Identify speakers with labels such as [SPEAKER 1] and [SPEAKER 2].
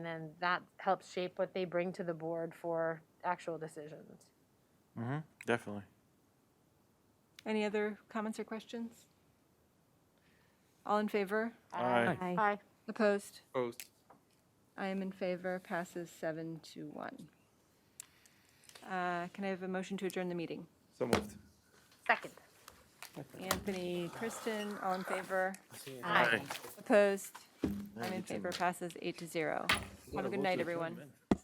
[SPEAKER 1] then that helps shape what they bring to the board for actual decisions.
[SPEAKER 2] Definitely.
[SPEAKER 3] Any other comments or questions? All in favor?
[SPEAKER 2] Aye.
[SPEAKER 4] Aye.
[SPEAKER 1] Aye.
[SPEAKER 3] Opposed?
[SPEAKER 5] Opposed.
[SPEAKER 3] I am in favor, passes seven to one. Uh, Can I have a motion to adjourn the meeting?
[SPEAKER 5] So moved.
[SPEAKER 1] Second.
[SPEAKER 3] Anthony, Kristen, all in favor?
[SPEAKER 1] Aye.
[SPEAKER 3] Opposed? I'm in favor, passes eight to zero. Have a good night, everyone.